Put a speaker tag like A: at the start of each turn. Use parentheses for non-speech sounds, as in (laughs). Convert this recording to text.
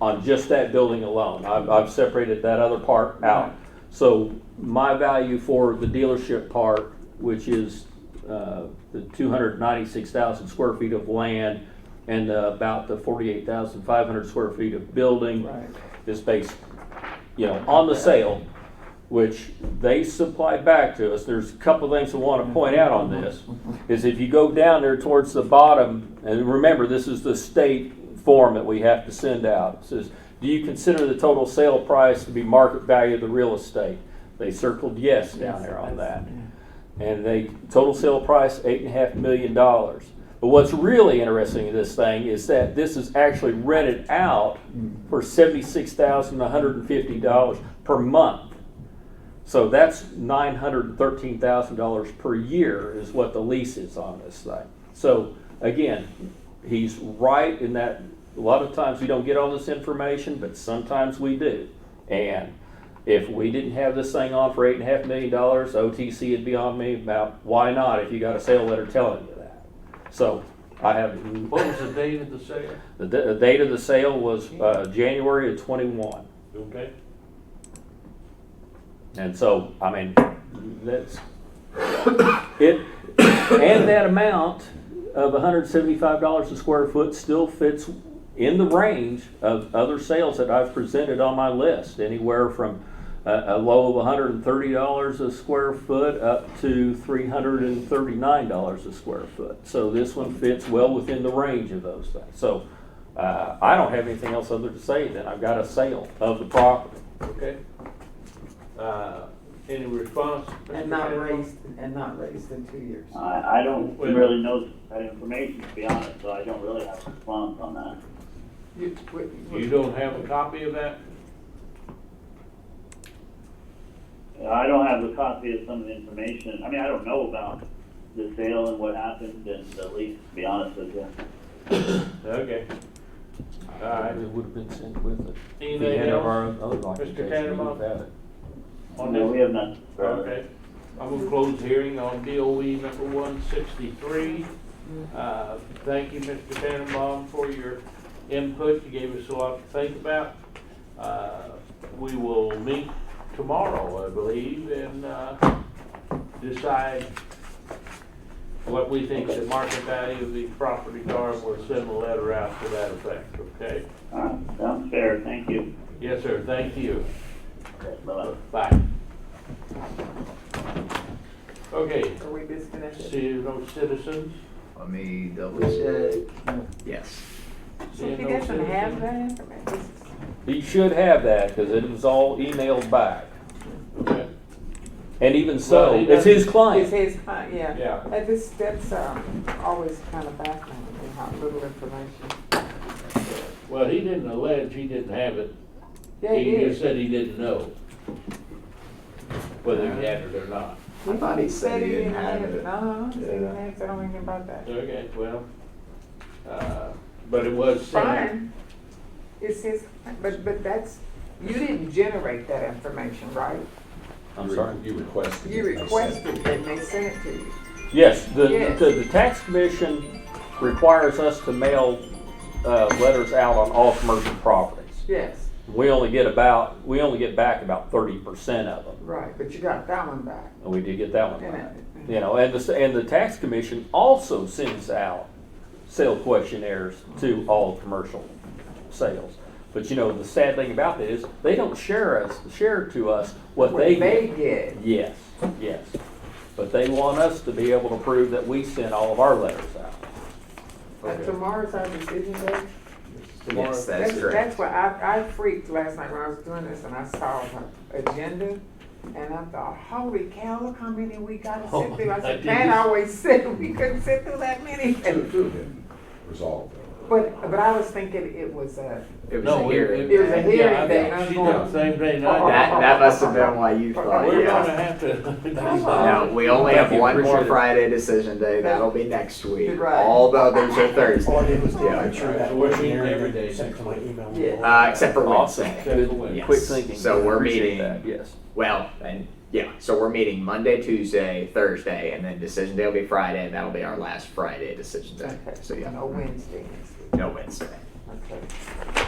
A: on just that building alone. I've, I've separated that other part out. So my value for the dealership part, which is, uh, the two hundred ninety-six thousand square feet of land and uh, about the forty-eight thousand five hundred square feet of building
B: Right.
A: is based, you know, on the sale, which they supply back to us. There's a couple things I want to point out on this, is if you go down there towards the bottom, and remember, this is the state form that we have to send out. It says, do you consider the total sale price to be market value of the real estate? They circled yes down
B: Yes,
A: there on
B: that's-
A: that. And they, total sale price, eight and a half million dollars. But what's really interesting in this thing is that this is actually rented out for seventy-six thousand, one hundred and fifty dollars per month. So that's nine hundred and thirteen thousand dollars per year is what the lease is on this thing. So again, he's right in that, a lot of times we don't get all this information, but sometimes we do. And if we didn't have this thing on for eight and a half million dollars, OTC would be on me about, why not, if you got a sale letter telling you that? So I have,
C: What was the date of the sale?
A: the, d- the date of the sale was, uh, January of twenty-one.
C: Okay.
A: And so, I mean, that's, it, and that amount of hundred seventy-five dollars a square foot still fits in the range of other sales that I've presented on my list, anywhere from a, a low of hundred and thirty dollars a square foot up to three hundred and thirty-nine dollars a square foot. So this one fits well within the range of those things. So, uh, I don't have anything else other to say than I've got a sale of the property.
C: Okay. Uh, Any response? Mr.
B: And not
C: Campbell?
B: raised, and not raised in two years.
D: I, I don't really know that information, to be honest, so I don't really have a response on that.
B: You- wait, wait.
C: You don't have a copy of that?
D: I don't have a copy of some of the information, I mean, I don't know about the sale and what happened and the lease, to be honest with you.
C: Okay. All right.
A: Uh, It would have been sent with it.
C: Anything
A: We had
C: else?
A: our own other documentation, we
C: Tannebaum?
A: would've had it.
C: On
D: No,
C: this-
D: we have none.
C: Okay, I'm gonna close hearing on DOE number one sixty-three. Uh, thank you, Mr. Tannenbaum, for your input, you gave us a lot to think about. Uh, we will meet tomorrow, I believe, and, uh, decide what we think the market value of these properties are, and we'll send a letter out to that effect, okay?
D: All right, sounds fair, thank you.
C: Yes, sir, thank you.
D: Okay, Bye-bye.
C: Bye. Okay,
B: Are we disconnected?
C: See no citizens?
E: Let me double check. Yes.
C: See
F: So if he
C: no
F: doesn't have
C: citizens?
F: that information,
A: He should have that, cause it was all emailed back,
C: Okay,
A: and even
C: Well,
A: so,
C: he
A: it's his
F: it's
A: client.
F: his, client, yeah.
C: Yeah,
F: That is, that's, um, always kind of baffling, me, how little information.
C: well, he didn't allege he didn't have it.
F: Yeah, he
C: just
F: is.
C: said he didn't know whether he had it or not.
E: I thought he said he didn't have it.
F: No, Uh-huh. he didn't
E: Yeah.
F: have, I don't know about that.
C: Okay, well, uh, but it was sent.
F: Fine, it's his, but, but that's, you didn't generate that information, right?
A: I'm sorry.
E: You requested.
F: You requested that they sent it to you.
A: Yes, the,
F: Yes.
A: the, the tax commission requires us to mail, uh, letters out on all commercial properties.
F: Yes,
A: We only get about, we only get back about thirty percent of them,
F: right, but you got that one back.
A: and we did get that one
F: Yeah.
A: back.
F: Mm-hmm.
A: You know, and the, s- and the tax commission also sends out sale questionnaires to all commercial sales. But you know, the sad thing about that is, they don't share us, share to us what
F: What
A: they
F: they
A: get.
F: get,
A: Yes, yes. But they want us to be able to prove that we sent all of our letters out.
F: but tomorrow's our decision day.
E: Yes, that's
F: That's,
E: correct.
F: that's why I, I freaked last night when I was doing this and I saw the agenda and I thought, holy cow, look how many we gotta
C: Oh,
F: sit through. I
C: I did
F: said, Pat
C: this-
F: always (laughs) said we couldn't sit through that many.
G: resolved.
F: But, but I was thinking it was a,
E: It was a
C: No,
E: hearing.
F: It was a
C: yeah,
F: hearing
C: I-
F: day, and I was
C: She
F: going-
C: done the same thing I
E: That, that must have been why you thought,
C: did. We're gonna
E: yeah.
C: have to.
F: on.
E: No, we only
A: Thank
E: have
A: you,
E: one more
A: appreciate it.
E: Friday decision day. That'll be next week.
F: Right.
E: All the others are
H: All I
E: Thursday.
H: did was
E: Yeah.
H: make sure that
C: So we're meeting
H: wasn't there
C: every
H: and
C: day
H: sent to my email.
F: Yeah.
E: Uh, except for
A: Awesome.
E: Wednesday.
C: Except for Wednesday.
A: Good, quick
E: Yes.
A: thinking.
E: So we're
A: Appreciate
E: meeting-
A: that, Yes.
E: Well, and yeah, so we're meeting Monday, Tuesday, Thursday, and then decision day will be Friday, and that'll be our last Friday decision day. So yeah,
F: no Wednesday next week.
E: no Wednesday.
F: Okay.